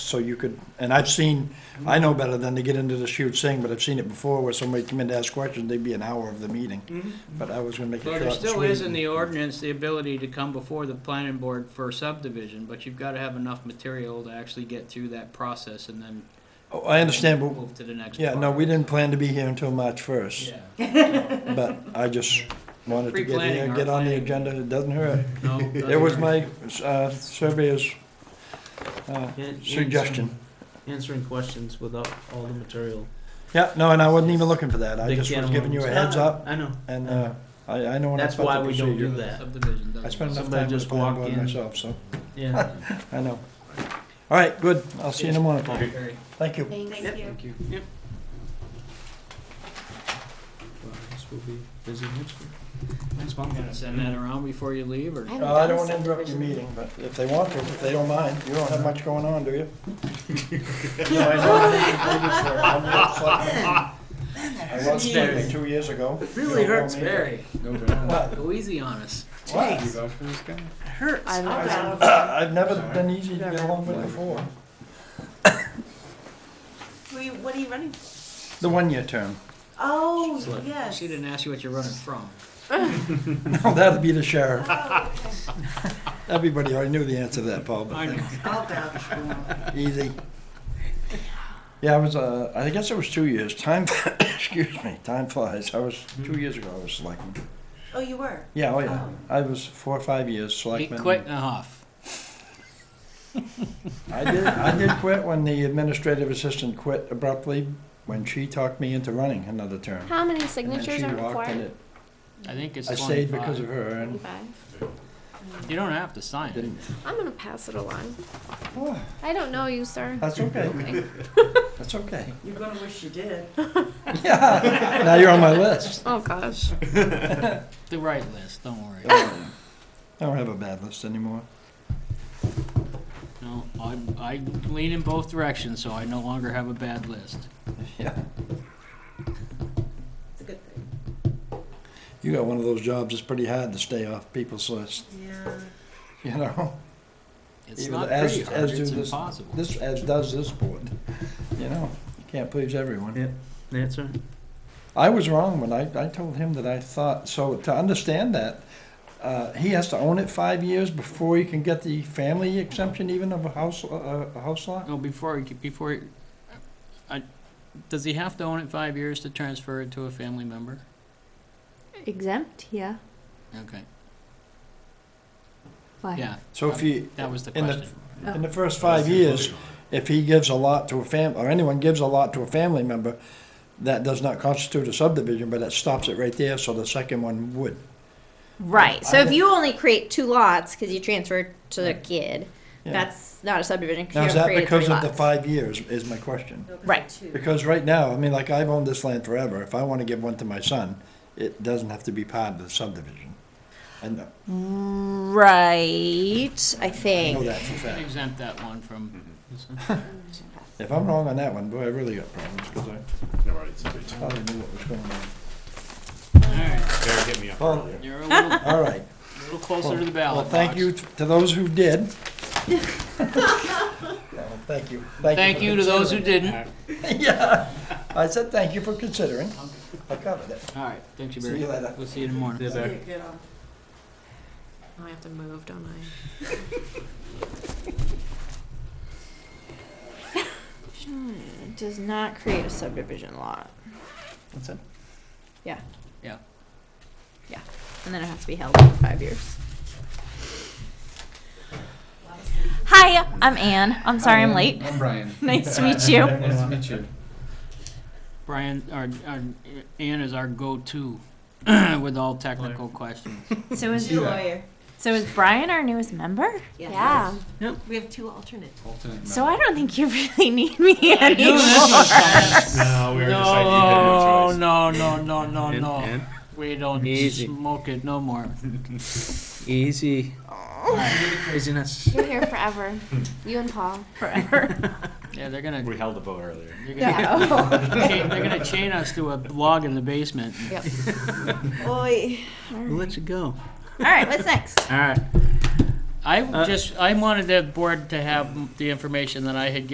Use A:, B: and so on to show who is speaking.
A: so you could, and I've seen, I know better than to get into this huge thing, but I've seen it before where somebody come in to ask questions, they'd be an hour of the meeting. But I was gonna make it
B: Well,
A: short
B: Mm-hmm. there
A: and
B: still
A: sweet.
B: is in the ordinance the ability to come before the planning board for subdivision, but you've gotta have enough material to actually get through that process and then
A: Oh, I understand, but,
B: move to the next.
A: yeah,
B: part.
A: no, we didn't plan to be here until March first,
B: Yeah,
A: but I just wanted to get
B: Pre-planning,
A: here,
B: our
A: get on the
B: planning.
A: agenda, it doesn't hurt.
B: no.
A: It was my, uh, surveyor's, uh, suggestion.
C: Answering questions without all the material.
A: Yeah, no, and I wasn't even looking for that, I
C: Big
A: just
C: can
A: was
C: of
A: giving you a
C: worms.
A: heads up,
C: I know.
A: and, uh, I, I know when I
C: That's
A: thought
C: why
A: the
C: we don't do
A: procedure.
C: that.
B: Subdivision doesn't.
A: I spent enough
C: Somebody
A: time with
C: just
A: the planning
C: walk
A: board
C: in.
A: myself, so,
C: Yeah.
A: I know. All right, good, I'll see you in the morning, Paul.
B: Okay.
A: thank you.
D: Thank you.
C: Thank you.
B: Yep.
C: Well, I guess we'll be busy next week. Next month.
B: Gonna send that around before you leave, or?
D: haven't
A: Uh, I
D: done
A: don't
D: a
A: wanna interrupt your
D: subdivision.
A: meeting, but if they want to, if they don't mind, you don't have much going on, do you? I was
B: Barry.
A: sleeping two years ago.
B: Really
A: You don't
B: hurts,
A: know me.
B: Barry.
E: No doubt.
A: What?
B: Go easy on us.
A: What?
E: You vouch for this guy?
B: Hurts.
D: I love that.
A: I've never been easy to get along with before.
F: Were you, what are you running?
A: The one-year term.
F: Oh,
C: Select.
F: yes.
B: She didn't ask you what you're running from.
A: No, that'd be the sheriff.
F: Oh, okay.
A: Everybody already knew the answer to that, Paul, but
B: know.
F: I'll vouch for him.
A: easy. Yeah, I was, uh, I guess it was two years. Time, excuse me, time flies. I was, two years ago, I was selectman.
F: Oh, you were?
A: Yeah, oh yeah. I was four or five years
B: He
A: selectman.
B: quit and huff.
A: I did, I did quit when the administrative assistant quit abruptly when she talked me into running another term.
D: How many
A: And then
D: signatures
A: she
D: are
A: walked
D: required?
A: and it-
B: I think it's
A: I
B: twenty-five.
A: stayed because of her and
D: Twenty-five.
B: You don't have to sign it.
A: didn't.
D: I'm gonna pass it along.
A: Oh,
D: I don't know you, sir.
A: That's okay. That's okay.
F: You're gonna wish you did.
A: Yeah, now you're on my list.
D: Oh, gosh.
B: The right list, don't worry.
A: I don't have a bad list anymore.
B: No, I, I lean in both directions, so I no longer have a bad list.
A: Yeah.
F: It's a good thing.
A: You got one of those jobs that's pretty hard to stay off people's list,
F: Yeah.
A: you know?
B: It's
A: Even
B: not
A: as-
B: pretty hard,
A: as do
B: it's
A: this-
B: impossible.
A: This, as does this board, you know? You can't please everyone.
C: Yeah, that's right.
A: I was wrong when I, I told him that I thought, so to understand that, uh, he has to own it five years before he can get the family exemption even of a house, uh, a house lot?
B: No, before, he- before, he- I, does he have to own it five years to transfer it to a family member?
D: Exempt, yeah.
B: Okay,
D: Why?
B: yeah,
A: So if he,
B: that was Oh. the
A: in the,
B: question.
A: in the first five years, if he gives a lot to a fam, or anyone gives a lot to a family member, that does not constitute a subdivision, but that stops it right there, so the second one would.
G: Right. So
A: I
G: if
A: don't-
G: you only create two lots because you transferred to the kid,
A: Yeah.
G: that's not a subdivision. 'cause
A: Now,
G: you
A: is
G: haven't
A: that
G: created
A: because
G: three
A: of the
G: lots.
A: five years, is my question?
F: No, 'cause
G: Right.
F: they're two.
A: Because right now, I mean, like I've owned this land forever. If I want to give one to my son, it doesn't have to be part of the subdivision. And I
G: Right. I
A: know
G: think.
A: that for a
B: Can
A: fact.
B: exempt that one from,
A: If I'm wrong on that one, boy, I really got problems because I
E: No, right, it's a bit-
A: probably knew what was going on.
B: alright,
E: Barry hit me up
A: Oh.
E: earlier.
B: you're a little,
A: All right.
B: little closer to the
A: Well,
B: ballot box.
A: thank you t- to those who did. Yeah, well, Thank you.
B: Thank
A: for
B: you to those who didn't.
A: considering. Yeah, I said thank you for considering. I covered it.
B: Alright, thank you,
A: See
B: Barry.
A: you later.
B: We'll see you in the morning.
C: They're back.
F: You get off.
D: I have to move, don't I?
G: It does not create a subdivision lot,
A: That's it.
G: and then it has to be held for five years. Hi, I'm Anne. I'm sorry I'm late.
E: I'm Brian.
G: Nice to meet you.
E: Nice to meet you.
B: Brian, our, our, Ann is our go-to with all technical questions.
G: So
F: She's
G: is
F: a lawyer.
G: so is Brian our newest member?
D: Yeah.
F: We have two alternates.
E: Alternate
G: So
E: member.
G: I don't think you really need me anymore.
E: No, we were just like, you had no
B: No,
E: choice.
B: no, no, no, no,
C: And-
B: no.
C: and-
B: We don't
C: Easy.
B: smoke it no more.
C: Easy. Oh, Craziness.
D: You're here forever. You and Paul.
B: Yeah, they're gonna,
E: We held a vote earlier.
B: they're gonna,
G: Yeah.
B: chain- they're gonna chain us to a log in the basement.
D: Yep.
G: Oi.
C: We'll let you go.
G: All right, what's next?
C: All right.
B: Uh, I just, I wanted the board to have the information that I had given